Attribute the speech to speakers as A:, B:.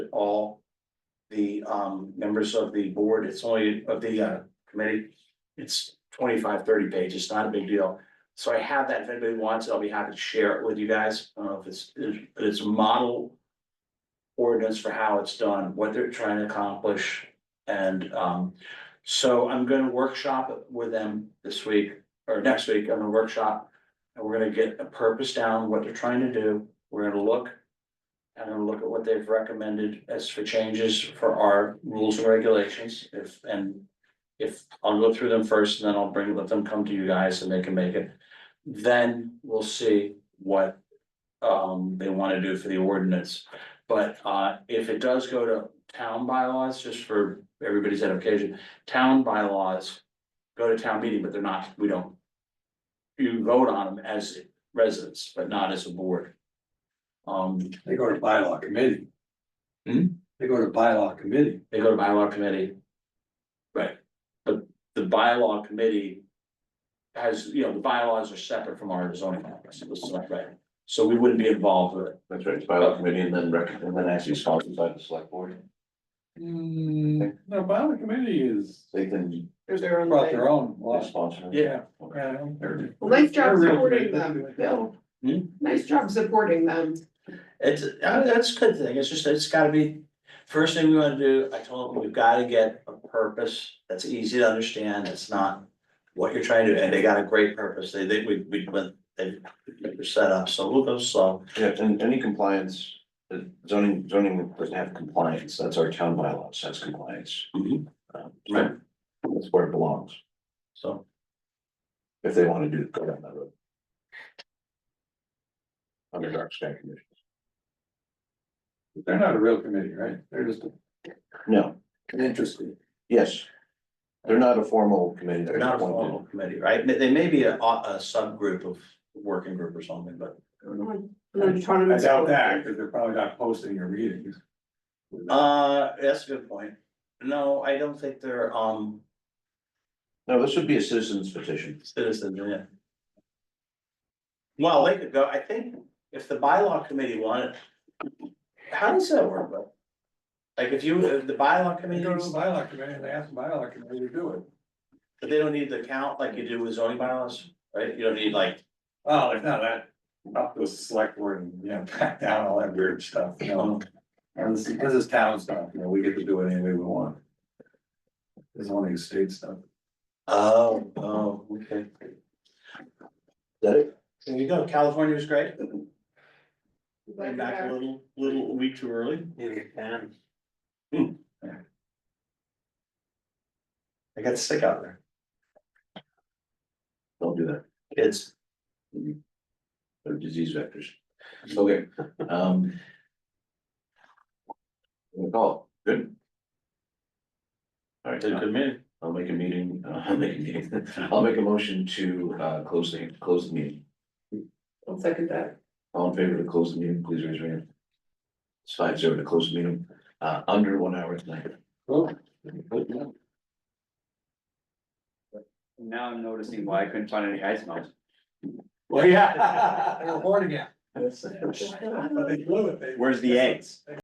A: all the um members of the board, it's only of the uh committee. It's 25, 30 pages, not a big deal. So I have that, if anybody wants, it, I'll be happy to share it with you guys, I don't know if it's, but it's a model. Ordinance for how it's done, what they're trying to accomplish, and um, so I'm gonna workshop it with them this week. Or next week, I'm gonna workshop, and we're gonna get a purpose down, what they're trying to do, we're gonna look. And then look at what they've recommended as for changes for our rules and regulations, if, and. If, I'll go through them first and then I'll bring, let them come to you guys and they can make it. Then we'll see what, um, they wanna do for the ordinance. But, uh, if it does go to town bylaws, just for everybody's education, town bylaws. Go to town meeting, but they're not, we don't. You vote on them as residents, but not as a board. Um,
B: They go to bylaw committee.
A: Hmm?
B: They go to bylaw committee.
A: They go to bylaw committee. Right, but the bylaw committee. Has, you know, the bylaws are separate from our zoning bylaws, this is not right, so we wouldn't be involved with it.
C: That's right, it's bylaw committee and then rec, and then actually sponsored by the select board,
B: No, bylaw committee is.
C: they can
D: There's their own
B: Brought
D: thing.
B: their own law.
C: sponsor.
A: Yeah.
C: Okay.
B: Well,
D: Well, nice job supporting them. Bill.
A: Hmm?
D: Nice job supporting them.
A: It's, uh, that's a good thing, it's just, it's gotta be, first thing we wanna do, I told them, we've gotta get a purpose that's easy to understand, it's not. What you're trying to, do, and they got a great purpose, they, they, we, we, they, they're set up, so we'll go slow,
C: Yeah, and any compliance, uh, zoning, zoning doesn't have compliance, that's our town bylaws, that's compliance.
A: Mhm.
C: Um,
A: Right.
C: That's where it belongs,
A: so.
C: if they wanna do, go down that road. Under dark sky conditions,
B: They're not a real committee, right? They're just
C: no,
B: an interest group.
C: yes, they're not a formal committee.
A: They're not a formal committee, right? They they may be a, a subgroup of working group or something, but,
B: I
D: Autonomous.
B: doubt that, because they're probably not posting your meetings.
A: uh, that's a good point. No, I don't think they're, um,
C: No, this would be a citizen's petition.
A: citizens, yeah. Well, they could go, I think, if the bylaw committee wanted, how does that work, though? Like, if you, if the bylaw
B: They
A: committee,
B: go to the bylaw committee and they ask the bylaw committee to do it.
A: but they don't need the count like you do with zoning bylaws, right? You don't need like,
B: Well, it's not that, up to the select board and, you know, back down all that weird stuff, you know. And this, this is town stuff, you know, we get to do it any way we want. It's only state stuff.
A: oh, oh, okay.
C: That it?
A: There you go, California was great,
D: Like
A: came back a
D: that.
A: little, little, a week too early. Hmm. I got sick out there,
C: Don't do that,
A: kids.
C: they're disease vectors. Okay, um. We'll call, it. good. All right,
A: Did
C: I'll-
A: good meeting.
C: I'll make a meeting, uh, I'll make a meeting, I'll make a motion to, uh, close the, close the meeting.
D: I'll second that.
C: All in favor to close the meeting, please raise your hand. It's five zero to close the meeting, uh, under one hour tonight.
B: Well,
E: Now I'm noticing why I couldn't find any ice melts.
B: yeah. They're recording it.
C: That's-
B: But they blew it, they.
E: Where's the eggs?